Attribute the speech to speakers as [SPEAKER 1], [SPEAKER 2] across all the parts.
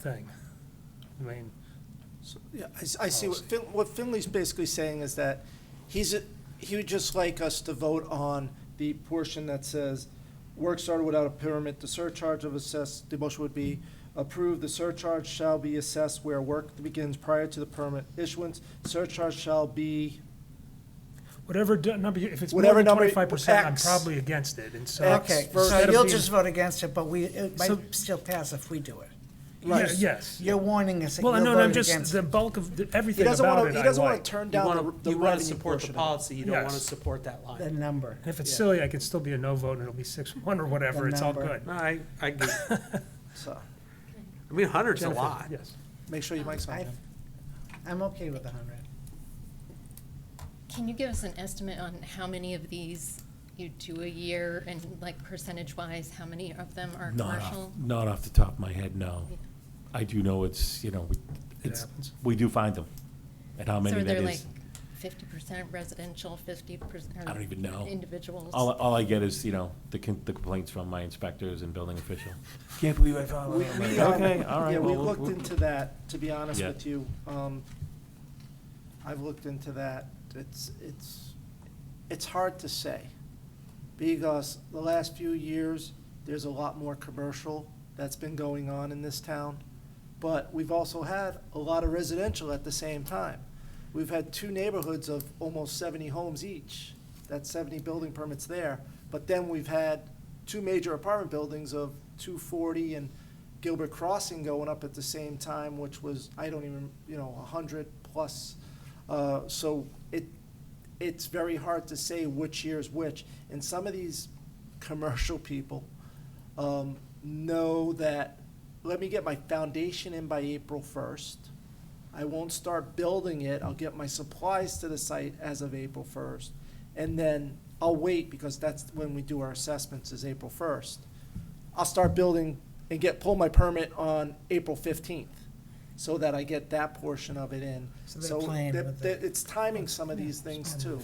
[SPEAKER 1] thing. I mean,
[SPEAKER 2] Yeah, I s- I see. What Fin- what Finley's basically saying is that he's, a- he would just like us to vote on the portion that says, work started without a permit, the surcharge of assess, the motion would be approved, the surcharge shall be assessed where work begins prior to the permit issuance, surcharge shall be
[SPEAKER 1] whatever d- number, you- if it's more
[SPEAKER 2] Whatever
[SPEAKER 1] than
[SPEAKER 2] number you-
[SPEAKER 1] twenty-five percent, I'm
[SPEAKER 2] X.
[SPEAKER 1] probably against it, and so.
[SPEAKER 2] X
[SPEAKER 3] Okay, so
[SPEAKER 1] instead of
[SPEAKER 3] you'll
[SPEAKER 1] being-
[SPEAKER 3] just vote against it, but we, it
[SPEAKER 1] So-
[SPEAKER 3] might still pass if we do it.
[SPEAKER 1] Yeah,
[SPEAKER 2] Right.
[SPEAKER 1] Yes.
[SPEAKER 3] You're warning us that
[SPEAKER 1] Well,
[SPEAKER 3] you'll
[SPEAKER 1] no, no, I'm
[SPEAKER 3] vote
[SPEAKER 1] just,
[SPEAKER 3] against
[SPEAKER 1] the
[SPEAKER 3] it.
[SPEAKER 1] bulk of, the-
[SPEAKER 2] He
[SPEAKER 1] everything
[SPEAKER 2] doesn't
[SPEAKER 1] about it,
[SPEAKER 2] want to, he
[SPEAKER 1] I
[SPEAKER 2] doesn't want
[SPEAKER 1] like.
[SPEAKER 2] to turn
[SPEAKER 4] You
[SPEAKER 2] down
[SPEAKER 4] wanna,
[SPEAKER 2] the- the
[SPEAKER 4] you wanna
[SPEAKER 2] revenue
[SPEAKER 4] support the
[SPEAKER 2] portion of
[SPEAKER 4] policy, you don't wanna
[SPEAKER 1] Yes.
[SPEAKER 4] support that
[SPEAKER 3] The
[SPEAKER 4] line.
[SPEAKER 3] number.
[SPEAKER 1] And if it's
[SPEAKER 4] Yeah.
[SPEAKER 1] silly, I can still be a no vote, and it'll be six-one or whatever, it's all
[SPEAKER 3] number.
[SPEAKER 1] good.
[SPEAKER 4] No, I, I get, it.
[SPEAKER 2] it. So,
[SPEAKER 4] I mean, hundred's a
[SPEAKER 1] Jennifer,
[SPEAKER 4] lot.
[SPEAKER 1] Yes.
[SPEAKER 2] make sure you mic
[SPEAKER 3] I-
[SPEAKER 2] something.
[SPEAKER 3] I'm okay with a hundred.
[SPEAKER 5] Can you give us an estimate on how many of these you do a year and like percentage-wise, how many of them are
[SPEAKER 6] Not off,
[SPEAKER 5] commercial?
[SPEAKER 6] not off the top of my head, no.
[SPEAKER 5] Yeah.
[SPEAKER 6] I do know it's, you know, we- it's,
[SPEAKER 1] happens.
[SPEAKER 6] we do find them, and how
[SPEAKER 5] So
[SPEAKER 6] many
[SPEAKER 5] are
[SPEAKER 6] that
[SPEAKER 5] there like
[SPEAKER 6] is.
[SPEAKER 5] fifty percent residential, fifty percent?
[SPEAKER 6] I don't even know. uh,
[SPEAKER 5] Individuals?
[SPEAKER 6] All, all I get is, you know, the con- the complaints from my inspectors and building official. Can't believe I found
[SPEAKER 2] We,
[SPEAKER 6] that.
[SPEAKER 2] we, um,
[SPEAKER 6] Okay, all right.
[SPEAKER 2] yeah, we
[SPEAKER 6] well, we'll-
[SPEAKER 2] looked
[SPEAKER 6] we'll-
[SPEAKER 2] into that, to be honest
[SPEAKER 6] Yeah.
[SPEAKER 2] with you. Um, I've looked into that. It's, it's, it's hard to say. Because the last few years, there's a lot more commercial that's been going on in this town. But we've also had a lot of residential at the same time. We've had two neighborhoods of almost seventy homes each. That's seventy building permits there. But then we've had two major apartment buildings of two forty and Gilbert Crossing going up at the same time, which was, I don't even, you know, a hundred plus. Uh, so it, it's very hard to say which year's which. And some of these commercial people um, know that, let me get my foundation in by April first. I won't start building it, I'll get my supplies to the site as of April first. And then I'll wait, because that's when we do our assessments, is April first. I'll start building and get, pull my permit on April fifteenth, so that I get that portion of it in.
[SPEAKER 3] So they're playing
[SPEAKER 2] that-
[SPEAKER 3] with
[SPEAKER 2] that-
[SPEAKER 3] it.
[SPEAKER 2] It's timing some of these things too,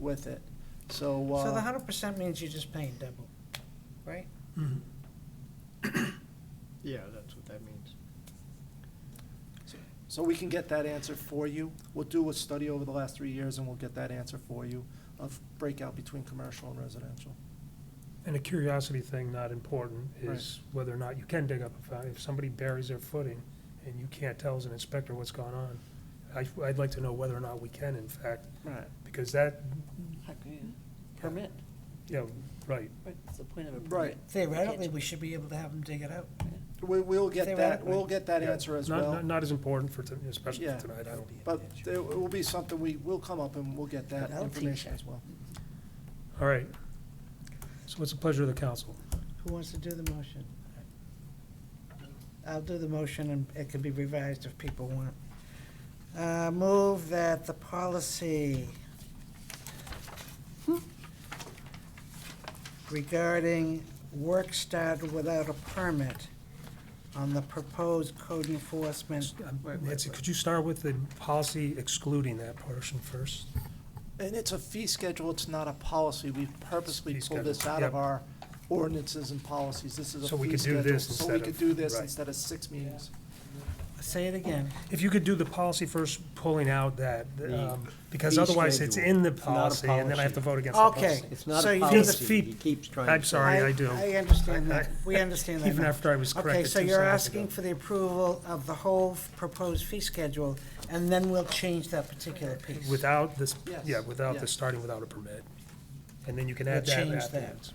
[SPEAKER 2] with it, so, uh.
[SPEAKER 3] So the hundred percent means you're just paying double, right?
[SPEAKER 7] Yeah, that's what that means.
[SPEAKER 2] So we can get that answer for you. We'll do a study over the last three years, and we'll get that answer for you of breakout between commercial and residential.
[SPEAKER 1] And a curiosity thing, not important,
[SPEAKER 2] Right.
[SPEAKER 1] is whether or not you can dig up a fountain. If somebody buries their footing and you can't tell as an inspector what's gone on, I, I'd like to know whether or not we can, in fact,
[SPEAKER 2] Right.
[SPEAKER 1] because that,
[SPEAKER 8] Permit,
[SPEAKER 1] yeah, right.
[SPEAKER 8] right, that's the point of a permit.
[SPEAKER 2] Right.
[SPEAKER 3] Theoretically, we should be able to have them dig it out.
[SPEAKER 2] We, we'll get that,
[SPEAKER 3] Theoretically.
[SPEAKER 2] we'll get that
[SPEAKER 1] Yeah.
[SPEAKER 2] answer as
[SPEAKER 1] Not-
[SPEAKER 2] well.
[SPEAKER 1] Not, not as important for, to- especially
[SPEAKER 2] Yeah.
[SPEAKER 1] for tonight, I don't.
[SPEAKER 2] But it will be something we, we'll come up and we'll get that
[SPEAKER 3] That'll teach
[SPEAKER 2] information
[SPEAKER 3] you.
[SPEAKER 2] as well.
[SPEAKER 1] All right. So what's the pleasure of the council?
[SPEAKER 3] Who wants to do the motion? I'll do the motion, and it can be revised if people want. Uh, Move that the policy regarding work started without a permit on the proposed code enforcement.
[SPEAKER 1] Um, Nancy, could you start with the policy excluding that portion first?
[SPEAKER 2] And it's a fee schedule, it's not a policy. We purposely
[SPEAKER 1] Fee
[SPEAKER 2] pulled this
[SPEAKER 1] schedule,
[SPEAKER 2] out of
[SPEAKER 1] yep.
[SPEAKER 2] our ordinances and policies. This is
[SPEAKER 1] So
[SPEAKER 2] a
[SPEAKER 1] we
[SPEAKER 2] fee
[SPEAKER 1] could do
[SPEAKER 2] schedule.
[SPEAKER 1] this
[SPEAKER 2] So we
[SPEAKER 1] instead
[SPEAKER 2] could
[SPEAKER 1] of-
[SPEAKER 2] do this
[SPEAKER 1] right.
[SPEAKER 2] instead of six meetings.
[SPEAKER 3] Say it again.
[SPEAKER 1] If you could do the policy first, pulling out that,
[SPEAKER 7] The
[SPEAKER 1] um, because
[SPEAKER 7] fee
[SPEAKER 1] otherwise it's
[SPEAKER 7] schedule.
[SPEAKER 1] in the
[SPEAKER 7] It's not a
[SPEAKER 1] policy, and then I have to
[SPEAKER 7] policy.
[SPEAKER 1] vote against the policy.
[SPEAKER 3] Okay.
[SPEAKER 7] It's not
[SPEAKER 3] so
[SPEAKER 7] a
[SPEAKER 3] you do the
[SPEAKER 7] policy,
[SPEAKER 1] fee-
[SPEAKER 7] he keeps trying.
[SPEAKER 1] I'm
[SPEAKER 7] to-
[SPEAKER 1] sorry, I do.
[SPEAKER 3] I understand that. We understand that.
[SPEAKER 1] Even
[SPEAKER 3] now.
[SPEAKER 1] after I was
[SPEAKER 3] Okay,
[SPEAKER 1] corrected
[SPEAKER 3] so
[SPEAKER 1] two
[SPEAKER 3] you're
[SPEAKER 1] seconds
[SPEAKER 3] asking
[SPEAKER 1] ago.
[SPEAKER 3] for the approval of the whole f- proposed fee schedule, and then we'll change that particular piece.
[SPEAKER 1] Without this,
[SPEAKER 2] Yes.
[SPEAKER 1] yeah, without the
[SPEAKER 2] Yes.
[SPEAKER 1] starting without a permit. And then you can
[SPEAKER 3] We'll
[SPEAKER 1] add that
[SPEAKER 3] change that. Oh,
[SPEAKER 1] afterwards.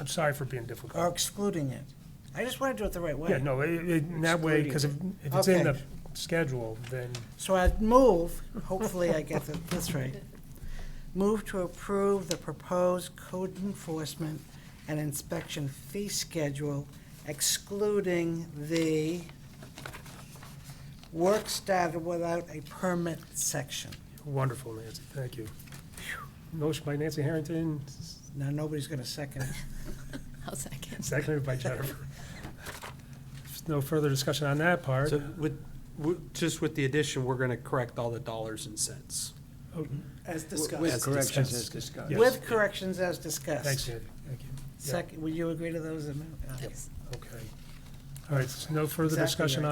[SPEAKER 1] I'm sorry for being
[SPEAKER 3] Or
[SPEAKER 1] difficult.
[SPEAKER 3] excluding it. I just want to do it the right way.
[SPEAKER 1] Yeah, no, it- it- in that way, because if if it's in the
[SPEAKER 3] Okay.
[SPEAKER 1] schedule, then
[SPEAKER 3] So I'd move, hopefully I get th- this right, move to approve the proposed code enforcement and inspection fee schedule excluding the work started without a permit section.
[SPEAKER 1] wonderful, Nancy, thank you. Motion by Nancy Harrington, s-
[SPEAKER 3] Now, nobody's going to second it.
[SPEAKER 5] I'll second.
[SPEAKER 1] seconded by Jennifer. No further discussion on that part.
[SPEAKER 4] So with, with- just with the addition, we're gonna correct all the dollars and cents.
[SPEAKER 1] Oh,
[SPEAKER 2] As
[SPEAKER 7] With
[SPEAKER 2] discussed,
[SPEAKER 7] corrections
[SPEAKER 1] discussed.
[SPEAKER 7] as discussed.
[SPEAKER 1] Yes.
[SPEAKER 3] With corrections as discussed.
[SPEAKER 1] Thanks, Andy, thank you. Yeah,
[SPEAKER 3] Second, would you agree to those amendments?
[SPEAKER 5] Yes.
[SPEAKER 1] Okay. All right, so no further
[SPEAKER 3] Exactly
[SPEAKER 1] discussion
[SPEAKER 3] right.